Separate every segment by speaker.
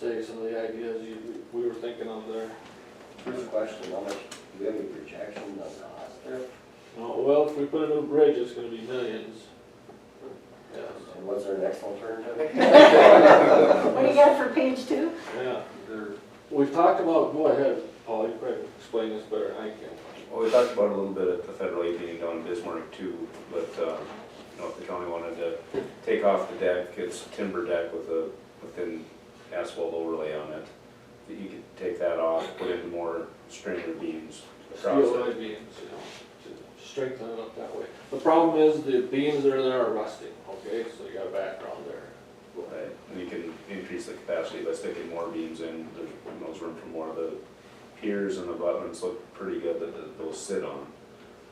Speaker 1: say some of the ideas you, we were thinking of there.
Speaker 2: First question, how much, do we have any projection on cost there?
Speaker 1: Oh, Well, if we put a new bridge, it's gonna be millions. Yes,
Speaker 2: And what's our next alternative?
Speaker 3: What do you got for page two?
Speaker 1: yeah, there, we've talked about, go ahead, Paul, you probably explain this better than I can.
Speaker 4: Well, we talked about it a little bit at the federal aid meeting down in Bismarck too, but, um, you know, if the county wanted to take off the deck, it's timber deck with a, with an asphalt overlay on it, that you could take that off, put in more stringer beams across
Speaker 1: Steel
Speaker 4: it.
Speaker 1: I beams, you know, to strengthen it up that way. The problem is the beams that are there are rusting, okay, so you got a background there.
Speaker 4: Right, and you can increase the capacity by sticking more beams in, there's, you know, there's room for more of the piers and the abutments look pretty good that that those sit on.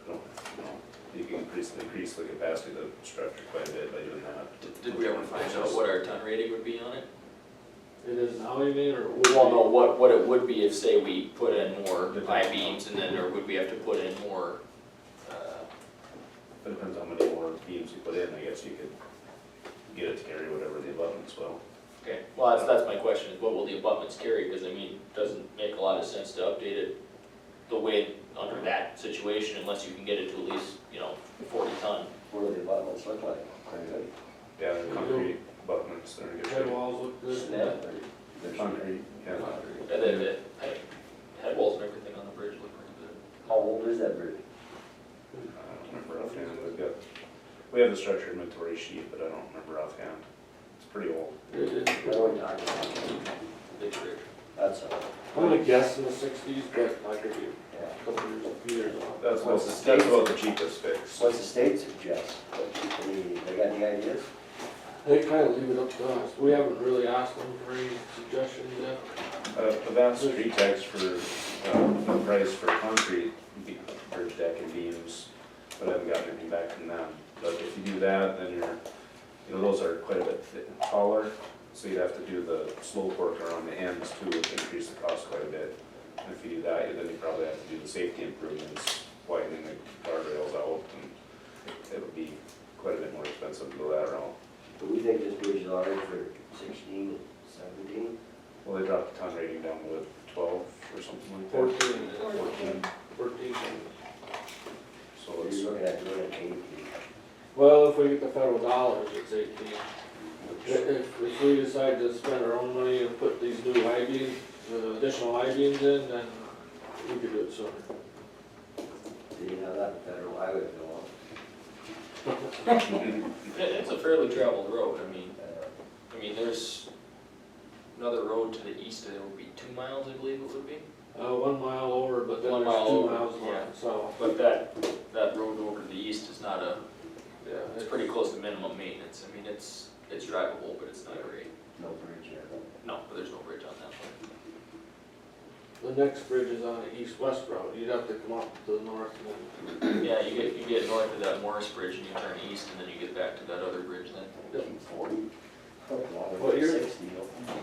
Speaker 4: You know, you know, You can increase, increase the capacity of the structure quite a bit by doing that.
Speaker 5: Did- Did we ever find out what our ton rating would be on it?
Speaker 1: It is now, you mean, or?
Speaker 5: We won't know what, what it would be if, say, we put in more I-beams and then, or would we have to put in more, uh,
Speaker 4: It depends how many more beams you put in, I guess you could get it to carry whatever the abutments will.
Speaker 5: okay, well, that's, that's my question, is what will the abutments carry? Because I mean, doesn't make a lot of sense to update it the way under that situation unless you can get it to at least, you know, forty ton.
Speaker 2: What do the abutments look like? Are they
Speaker 4: Yeah, they're concrete abutments, they're in good
Speaker 1: Head
Speaker 4: shape.
Speaker 1: walls look good.
Speaker 2: snap or? they're-
Speaker 4: Concrete, yeah.
Speaker 5: And then the head- head walls and everything on the bridge look pretty
Speaker 2: How old is that bridge?
Speaker 4: I don't remember offhand, we've got, we have the structure inventory sheet, but I don't remember offhand. It's pretty old.
Speaker 1: It- it-
Speaker 2: What are we talking about?
Speaker 5: good, big bridge.
Speaker 2: That's, a-
Speaker 1: I'm gonna guess in the sixties, but I could be
Speaker 2: yeah.
Speaker 1: a couple years, a few years off.
Speaker 4: That's
Speaker 2: What's
Speaker 4: what's,
Speaker 2: the
Speaker 4: that's
Speaker 2: state-
Speaker 4: about the cheapest fix.
Speaker 2: What's the state suggest? Any, they got any ideas?
Speaker 1: They kinda leave it up to us, we haven't really asked them for any suggestions yet.
Speaker 4: Uh, but that's pretext for, um, the price for concrete, be- bridge deck and beams, but I haven't gotten anything back from them. But if you do that, then you're, you know, those are quite a bit thi- taller, so you'd have to do the slope work around the ends too, which increase the cost quite a bit. And if you do that, then you probably have to do the safety improvements, widening the guardrails out, and it would be quite a bit more expensive to go that route.
Speaker 2: Do we think this bridge is already for sixteen, seventeen?
Speaker 4: Well, they dropped the ton rating down to twelve or something like that.
Speaker 1: Fourteen,
Speaker 4: Fourteen.
Speaker 1: fourteen.
Speaker 4: So
Speaker 2: Or
Speaker 4: it's.
Speaker 2: you're looking at doing it eighteen?
Speaker 1: Well, if we get the federal dollars, it's eighteen. I-
Speaker 2: which-
Speaker 1: If, if we decide to spend our own money and put these new I beams, the additional I beams in, then we could do it sooner.
Speaker 2: Do you know that federal highway bill?
Speaker 5: It- It's a fairly traveled road, I mean,
Speaker 2: Uh,
Speaker 5: I mean, there's another road to the east, it would be two miles, I believe it would be.
Speaker 1: Uh, one mile over, but then
Speaker 5: One
Speaker 1: there's
Speaker 5: mile
Speaker 1: two
Speaker 5: over,
Speaker 1: miles
Speaker 5: yeah.
Speaker 1: left, so,
Speaker 5: But that, that road over to the east is not a,
Speaker 1: yeah.
Speaker 5: it's pretty close to minimum maintenance. I mean, it's, it's drivable, but it's not great.
Speaker 2: No bridge yet.
Speaker 5: No, but there's no bridge on that one.
Speaker 1: The next bridge is on the east-west route, you'd have to come up to the north and then
Speaker 5: Yeah, you get, you get north of that Morris Bridge and you turn east and then you get back to that other bridge then.
Speaker 2: Nineteen forty?
Speaker 1: What year?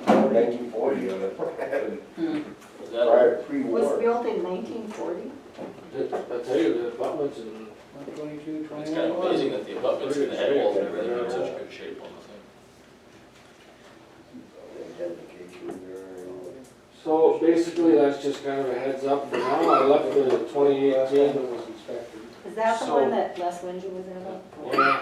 Speaker 2: Nineteen forty,
Speaker 5: Was that-
Speaker 2: prior,
Speaker 3: Was
Speaker 2: pre-war.
Speaker 3: built in nineteen forty?
Speaker 1: I tell you, the abutments and,
Speaker 5: It's kind of amazing that the abutments and the head walls and everything are in such good shape on the thing.
Speaker 2: Identification there.
Speaker 1: so basically, that's just kind of a heads up for now, I left the twenty eighteen.
Speaker 3: Is that the
Speaker 1: So-
Speaker 3: one that Les Winger was in about?
Speaker 1: Yeah,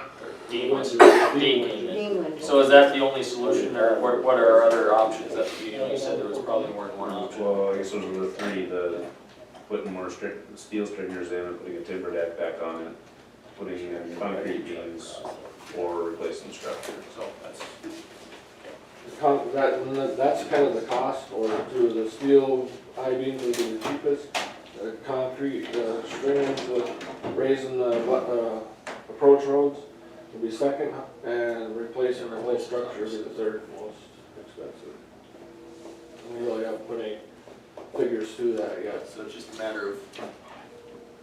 Speaker 5: Dean was- Dean came in.
Speaker 3: Dean Winger.
Speaker 5: So is that the only solution or what, what are our other options? That, you know, you said there was probably more than one option.
Speaker 4: Uh, Well, I guess those were the three, the putting more stri- steel stringers in, and putting a timber deck back on it, putting in concrete beams, or replacing structure, so that's.
Speaker 1: the con- that, and that- that's kind of the cost, or to the steel I beams would be the cheapest. The concrete, uh, strings with raising the, what, uh, approach roads would be second, and replacing the whole structure would be the third most expensive. We really haven't put any figures to that yet.
Speaker 5: So it's just a matter of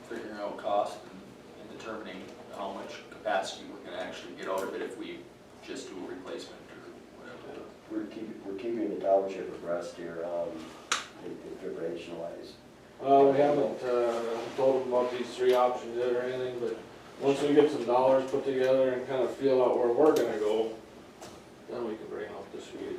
Speaker 5: figuring out cost and- and determining how much capacity we're gonna actually get out of it if we just do a replacement or whatever.
Speaker 2: We're keeping, we're keeping the township abreast here, um, information wise.
Speaker 1: Uh, we haven't, uh, told them about these three options yet or anything, but once we get some dollars put together and kind of feel out where we're gonna go, then we can bring up this week.